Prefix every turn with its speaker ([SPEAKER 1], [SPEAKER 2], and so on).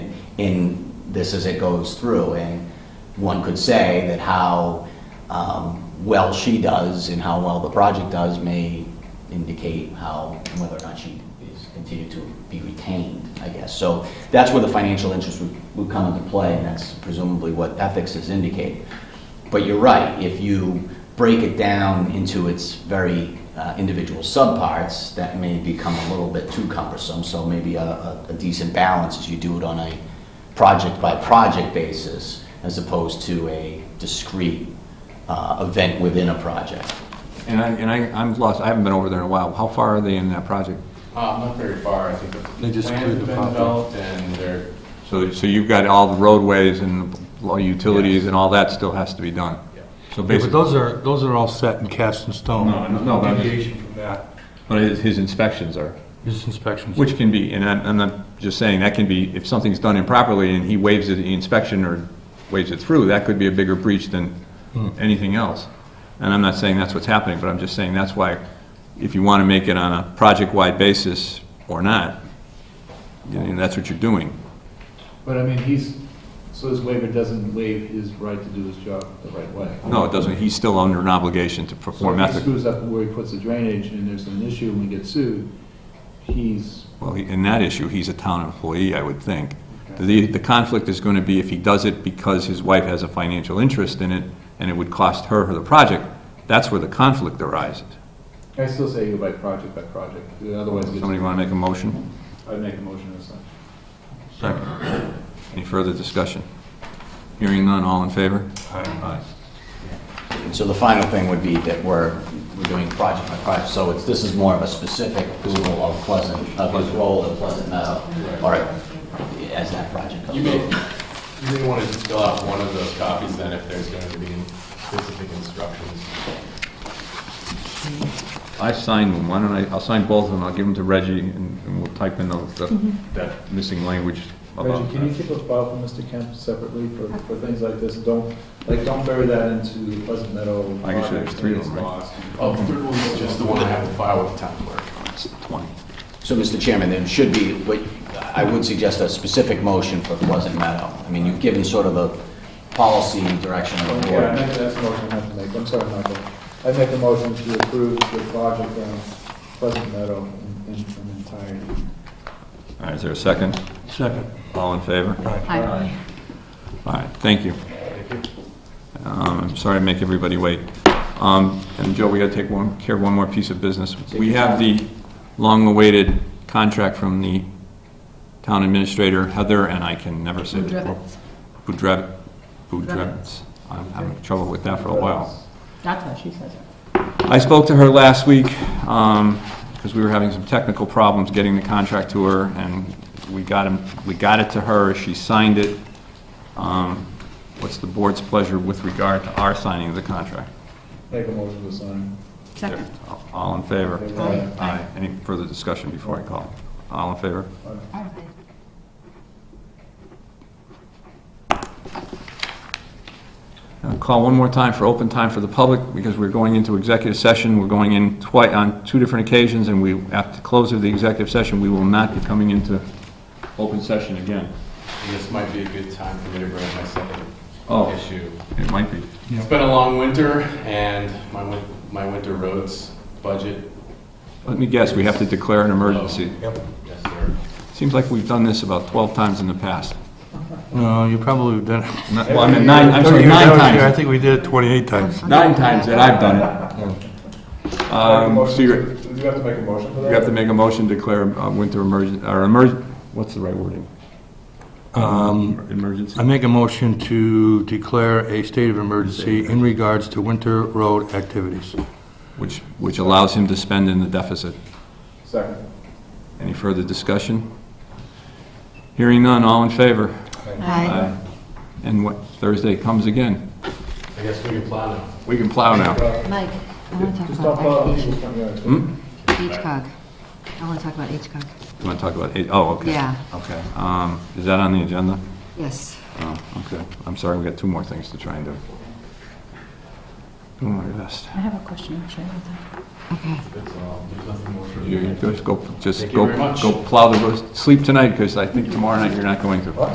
[SPEAKER 1] in this as it goes through. And one could say that how um, well she does and how well the project does may indicate how, whether or not she is continued to be retained, I guess. So that's where the financial interest would, would come into play, and that's presumably what ethics is indicating. But you're right, if you break it down into its very uh, individual subparts, that may become a little bit too cumbersome, so maybe a- a, a decent balance is you do it on a project-by-project basis as opposed to a discrete uh, event within a project.
[SPEAKER 2] And I, and I, I'm lost, I haven't been over there in a while. How far are they in that project?
[SPEAKER 3] Uh, not very far, I think the
[SPEAKER 2] They just
[SPEAKER 3] plans
[SPEAKER 2] cleared
[SPEAKER 3] have
[SPEAKER 2] the
[SPEAKER 3] been
[SPEAKER 2] property.
[SPEAKER 3] developed and they're,
[SPEAKER 2] So, so you've got all the roadways and all utilities and all that still has to be done?
[SPEAKER 3] yeah.
[SPEAKER 2] So
[SPEAKER 4] Yeah, but
[SPEAKER 2] basically,
[SPEAKER 4] those are, those are all set and cast in stone.
[SPEAKER 2] No, no, no, but-
[SPEAKER 4] Deviation from that,
[SPEAKER 2] but his- his inspections are,
[SPEAKER 4] his inspections.
[SPEAKER 2] which can be, and I'm, I'm not just saying, that can be, if something's done improperly and he waives it, the inspection or waves it through, that could be a bigger breach than
[SPEAKER 4] Hmm.
[SPEAKER 2] anything else. And I'm not saying that's what's happening, but I'm just saying that's why, if you want to make it on a project-wide basis or not, you know, that's what you're doing.
[SPEAKER 5] But I mean, he's, so his waiver doesn't waive his right to do his job the right way.
[SPEAKER 2] No, it doesn't, he's still under an obligation to
[SPEAKER 5] So
[SPEAKER 2] perform
[SPEAKER 5] if he
[SPEAKER 2] ethics.
[SPEAKER 5] screws up where he puts the drainage and there's an issue and we get sued, he's,
[SPEAKER 2] Well, he- in that issue, he's a town employee, I would think. The, the conflict is going to be if he does it because his wife has a financial interest in it, and it would cost her the project, that's where the conflict arises.
[SPEAKER 5] I still say you by project by project, otherwise it
[SPEAKER 2] Somebody
[SPEAKER 5] gets,
[SPEAKER 2] want to make a motion?
[SPEAKER 5] I'd make a motion as such.
[SPEAKER 2] Any further discussion? Hearing none, all in favor? Aye.
[SPEAKER 1] So the final thing would be that we're, we're doing project by project, so it's, this is more of a specific Google of Pleasant, of his role in Pleasant Meadow, or as that project comes.
[SPEAKER 3] You may,
[SPEAKER 1] up.
[SPEAKER 3] you may want to just fill out one of those copies then if there's going to be specific instructions.
[SPEAKER 2] I signed one, why don't I, I'll sign both of them, I'll give them to Reggie, and and we'll type in the- the, that missing language about
[SPEAKER 5] Reggie, Um, can you keep a file for Mr. Kemp separately for, for things like this? Don't, like, don't bury that into the Pleasant Meadow.
[SPEAKER 2] I guess there's three of them, right?
[SPEAKER 3] Oh, third one's just the one I have to file with the town clerk.
[SPEAKER 2] It's 20.
[SPEAKER 1] So, Mr. Chairman, there should be, what, I would suggest a specific motion for Pleasant Meadow. I mean, you've given sort of a policy direction of the
[SPEAKER 5] Yeah, I
[SPEAKER 1] board.
[SPEAKER 5] make, that's the motion I have to make, I'm sorry, Michael. I make a motion to approve the project on Pleasant Meadow in, in in entirety.
[SPEAKER 2] All right, is there a second?
[SPEAKER 4] Second.
[SPEAKER 2] All in favor?
[SPEAKER 6] Aye.
[SPEAKER 2] All right, thank you. Um, I'm sorry to make everybody wait. Um, And Joe, we got to take one, care of one more piece of business. We have the long-awaited contract from the town administrator, Heather, and I can never say. the-
[SPEAKER 6] Budrevitz.
[SPEAKER 2] Budrev- Budrevitz. I'm having trouble with that for a while.
[SPEAKER 6] That's what she says.
[SPEAKER 2] I spoke to her last week, because we were having some technical problems getting the contract to her, and we got him, we got it to her, she signed it. Um, What's the board's pleasure with regard to our signing of the contract?
[SPEAKER 5] Make a motion to sign.
[SPEAKER 6] Second.
[SPEAKER 2] All in favor?
[SPEAKER 5] Aye.
[SPEAKER 2] Aye. Any further discussion before I call? All in favor? I'll Call one more time for open time for the public, because we're going into executive session. We're going in twice, on two different occasions, and we, at the close of the executive session, we will not be coming into open session again.
[SPEAKER 3] And this might be a good time for me to bring up my
[SPEAKER 2] Oh.
[SPEAKER 3] second issue.
[SPEAKER 2] It might be.
[SPEAKER 3] It's been a long winter and my, win- my winter roads budget.
[SPEAKER 2] Let me guess, we have to declare an emergency.
[SPEAKER 3] Yep. Yes, sir.
[SPEAKER 2] Seems like we've done this about 12 times in the past.
[SPEAKER 4] No, you probably have done
[SPEAKER 2] Not- Well, I mean, nine, I'm sorry,
[SPEAKER 4] Every year
[SPEAKER 2] nine
[SPEAKER 4] I was here, I
[SPEAKER 2] times.
[SPEAKER 4] think we did it 28 times.
[SPEAKER 2] Nine times that I've done it. Um, so you're-
[SPEAKER 5] Do you have to make a motion for that?
[SPEAKER 2] You have to make a motion to declare a winter emergency, or emerg, what's the right wording?
[SPEAKER 4] Um,
[SPEAKER 2] Emergency?
[SPEAKER 4] I make a motion to declare a state of emergency in regards to winter road activities.
[SPEAKER 2] Which, which allows him to spend in the deficit.
[SPEAKER 5] Second.
[SPEAKER 2] Any further discussion? Hearing none, all in favor?
[SPEAKER 6] Aye.
[SPEAKER 2] And what, Thursday comes again.
[SPEAKER 3] I guess we can plow now.
[SPEAKER 2] We can plow now. Hmm?
[SPEAKER 6] Mike, I want to talk
[SPEAKER 5] Just don't follow
[SPEAKER 6] about
[SPEAKER 5] the
[SPEAKER 6] H-
[SPEAKER 5] people from your-
[SPEAKER 6] HCOG. I want to talk about HCOG.
[SPEAKER 2] You want to talk about, eight- oh, okay.
[SPEAKER 6] Yeah.
[SPEAKER 2] Okay. Um, Is that on the agenda?
[SPEAKER 6] Yes.
[SPEAKER 2] Oh, okay. I'm sorry, we got two more things to try and do. Do my best.
[SPEAKER 7] I have a question, Chairman.
[SPEAKER 6] Okay.
[SPEAKER 3] That's all. uh, There's nothing more for
[SPEAKER 2] You-
[SPEAKER 3] you.
[SPEAKER 2] you Just go, just
[SPEAKER 3] Thank you
[SPEAKER 2] go,
[SPEAKER 3] very much.
[SPEAKER 2] go plow the road, sleep tonight, because I think tomorrow night you're not going to.